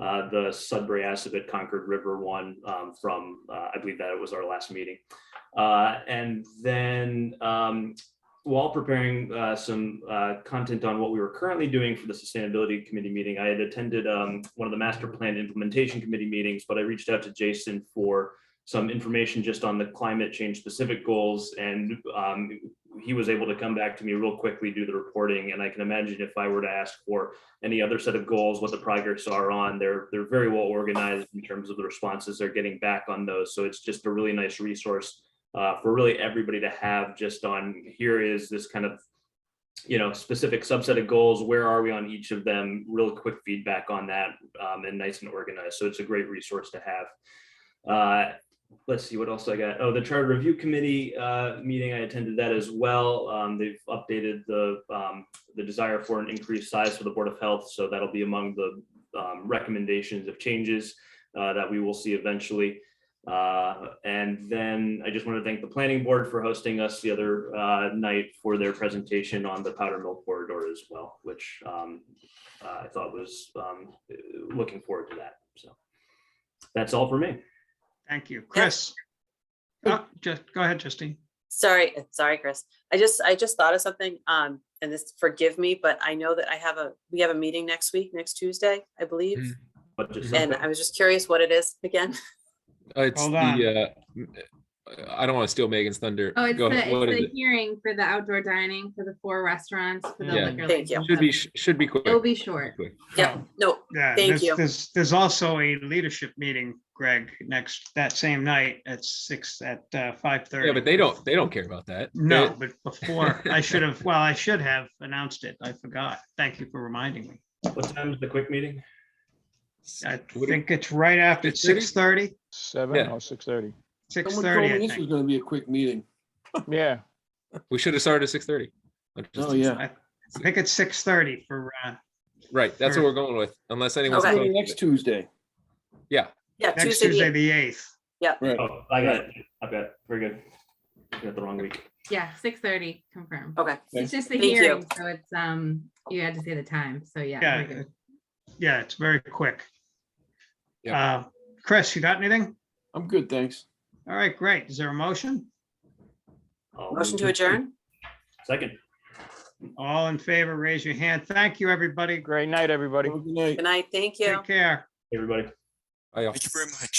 uh, the Sudbury Assabet Concord River one um, from, uh, I believe that it was our last meeting. Uh, And then um, while preparing uh, some uh, content on what we were currently doing for the Sustainability Committee meeting, I had attended um, one of the Master Plan Implementation Committee meetings, but I reached out to Jason for some information just on the climate change specific goals and um, he was able to come back to me real quickly, do the reporting, and I can imagine if I were to ask for any other set of goals, what the progress are on, they're, they're very well organized in terms of the responses they're getting back on those. So it's just a really nice resource uh, for really everybody to have just on, here is this kind of, you know, specific subset of goals, where are we on each of them, real quick feedback on that, um, and nice and organized. So it's a great resource to have. Uh, let's see what else I got. Oh, the charter review committee uh, meeting, I attended that as well. Um, They've updated the, um, the desire for an increased size for the Board of Health, so that'll be among the um, recommendations of changes uh, that we will see eventually. Uh, And then I just want to thank the planning board for hosting us the other uh, night for their presentation on the Powder Mill corridor as well, which um, I thought was um, looking forward to that. So that's all for me. Thank you. Chris? Oh, just, go ahead, Justine. Sorry, uh, sorry, Chris. I just, I just thought of something, um, and this, forgive me, but I know that I have a, we have a meeting next week, next Tuesday, I Mm. believe. But just And I was just curious what it is again. Uh, It's Hold the, on. uh, m- I don't want to steal Megan's thunder. Oh, it's Go ahead. the, What it's is it? the hearing for the outdoor dining for the four restaurants for the Yeah. liquor Thank you. license. Should be, sh- should be quick. It'll be short. Quick. Yeah, Oh, no, Yeah, Thank there's- you. There's, there's also a leadership meeting, Greg, next, that same night at six, at uh, five thirty. Yeah, but they don't, they don't care about that. No, They- but before, I should have, well, I should have announced it. I forgot. Thank you for reminding me. what time is the quick meeting? I What do- think it's right after It's six? six thirty. Seven Yeah. or six thirty. Six Someone told thirty. me this was gonna be a quick meeting. Yeah, We should have started at six thirty. Oh, yeah. I think it's six thirty for, uh, Right, that's what Sure. we're going with, unless anyone's. Okay. Maybe opposed to Next it. Tuesday. yeah, next Tuesday, Tuesday, the- the eighth. Right. Oh, I got it. I've got, it. very good. I got the wrong week. Yeah, six thirty confirmed. okay, It's just the Thank you. hearing, so it's, um, you had to say the time, so yeah. Yeah, we're good. Yeah, it's very quick. Yep. Uh, Chris, you got anything? I'm good, thanks. All right, great. Is there a motion? I'll motion move to adjourn? Second. All in favor, raise your hand. Thank you, everybody. great night, everybody. Have a Good night. Good night, thank you. Take care. Everybody. Bye, y'all. Thank you very much.